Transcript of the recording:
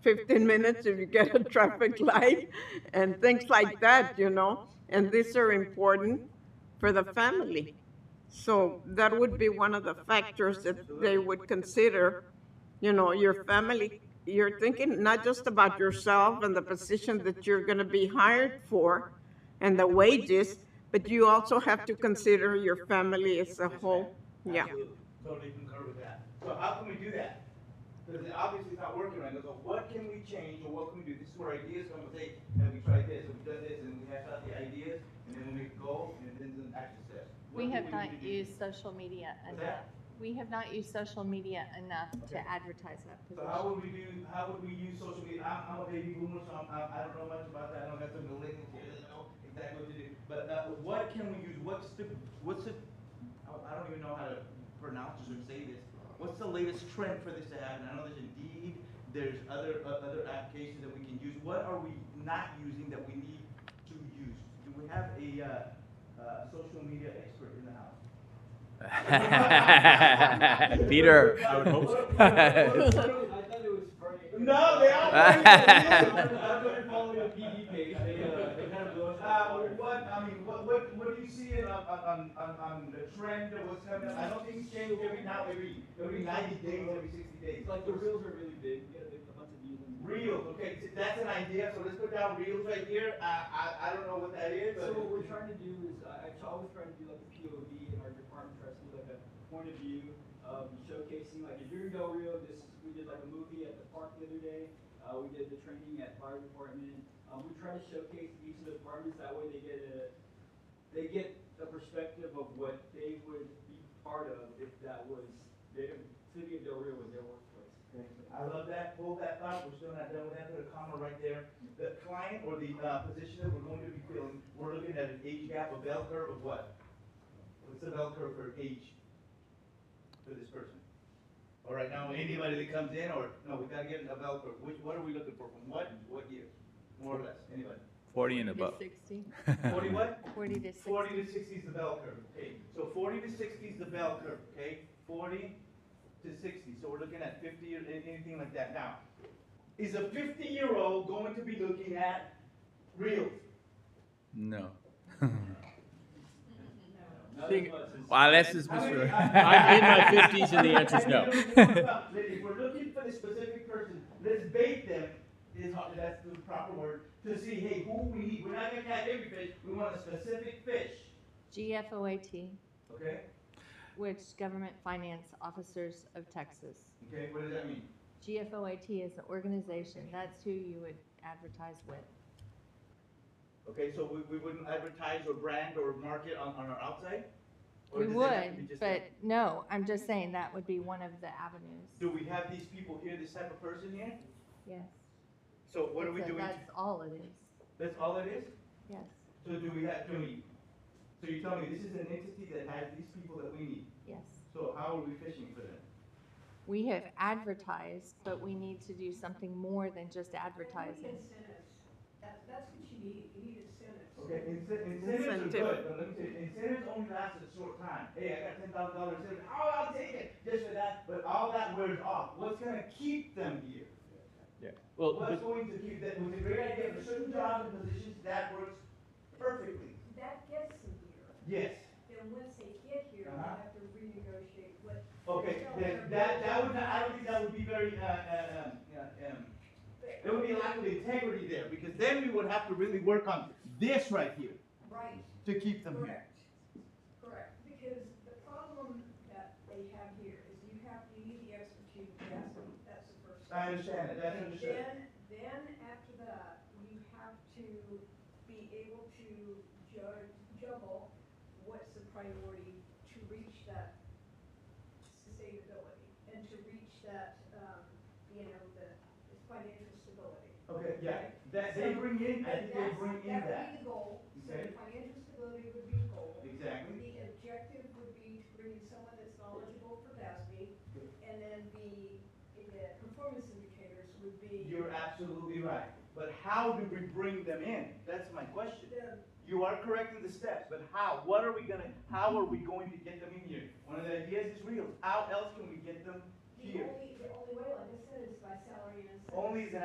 15 minutes if you get a traffic light and things like that, you know? And these are important for the family. So that would be one of the factors that they would consider, you know, your family. You're thinking not just about yourself and the position that you're going to be hired for and the wages, but you also have to consider your family as a whole. Yeah. Absolutely. Totally concur with that. So how can we do that? Because it obviously it's not working right now, so what can we change or what can we do? This is where ideas come and say, have we tried this, have we done this, and we hash out the ideas, and then we make a goal, and then some action steps. What do We have not need to do? used social media What's that? enough. We have not used social media enough to Okay. advertise that So how position. would we do, how would we use social media? I'm, I'm a baby boomer, so I'm, I'm, I am i am i do not know much about that. I don't have to relate to it. I don't know exactly what to do. But uh, what can we use? What's the, what's the, I- I don't even know how to pronounce this or say this. What's the latest trend for this to happen? I know there's Indeed, there's other, uh, other applications that we can use. What are we not using that we need to use? Do we have a, uh, uh, social media expert in the house? Peter. I would hope so. thought it was very. No, they all. I'm going to follow the PD page, they, uh, they kind of blew us Uh, out of water. what, I mean, what, what, what do you see in, on, on, on, on the trend of what's coming up? I don't think it's changed every now, every, every ninety days, every sixty days. It's like the reels are really big, you get a bunch of views. and- Reels, okay, so that's an idea, so let's put down reels right here, I, I, I don't know what that is, So but. what we're trying to do is, uh, I, I always try to do like a POV in our department, tries to do like a point of view, um, showcasing like a year ago real, this, is- we did like a movie at the park the other day, uh, we did the training at fire department. Um, we try to showcase each of the departments, that way they get a, they get a perspective of what they would be part of if that was, their, city of Del Rio was their workplace. I love that, hold that thought, we're still not done with that, put a comma right there. The client or the, uh, position that we're going to be filling, we're looking at an age gap, a bell curve of what? What's the bell curve for age for this person? All right, now, anybody that comes in, or, no, we gotta get a bell curve, which, what are we looking for, from what, what year? More or less, anybody? 40 and To above. 60, Forty what? 40 to 60. Forty to sixty is the bell curve, okay? So forty to sixty is the bell curve, okay? Forty to sixty, so we're looking at fifty or a- anything like that. Now, is a fifty-year-old going to be looking at reels? No. Not Think- as much as- Well, unless it's How many- Mr. I- I'm in my 50s and the answer's no. If we're looking for the specific person, let's bait them, is, how- that's the proper word, to see, hey, who we need. We're not gonna catch every fish, we want a specific fish, GFOAT, okay? which Government Finance Officers of Texas. Okay, what does that mean? GFOAT is an organization, that's who you would advertise with. Okay, so we, we wouldn't advertise or brand or market on, on our outside? Or We does it have to be would, just but that? no, I'm just saying that would be one of the avenues. Do we have these people here, this type of person here? Yes. So what are we So doing? That's all it is, That's all it is? yes, So do we have, do we? So you tell me, this is an entity that has these people that we need, yes. so how are we fishing for them? We have advertised, but we need to do something more than just advertising. Incentives. That, that's what you need, you need incentives. Okay, ince- incentives are Incentive. good, but let me tell you, incentives only last a short time. Hey, I got ten thousand dollars incentive, oh, I'll take it, just for that, but all that wears off, what's gonna keep them here? Well, What's but going to keep that, was a great idea for certain jobs and positions, that works perfectly. That gets them here, Yes. then once they get here, you Uh-huh. have to renegotiate what, Okay, then that, that would, not- I don't think that would be very, uh, uh, um, yeah, um, there would be a lack of integrity there, because then we would have to really work on this right here right, to keep them here. correct, correct. Because the problem that they have here is you have, you need the expertise, that's, that's the first. I step. understand it, that's understood. Then, then after that, you have to be able to judge, juggle what's the priority to reach that sustainability and to reach that, um, you know, the the financial stability. Okay, yeah, that, they bring in, I think they That's- bring in That would that. be the goal, so Okay. the financial stability would be the goal. Exactly. The objective would be to bring in someone that's knowledgeable for GASB, and then the, the performance indicators would be. You're absolutely right, but how do we bring them in? That's my question. the- You are correct in the steps, but how? What are we gonna, how are we going to get them in here? One of the ideas is real. How else can we get them The here? only, the only way, like I said, is by salary and. incentives. Only as an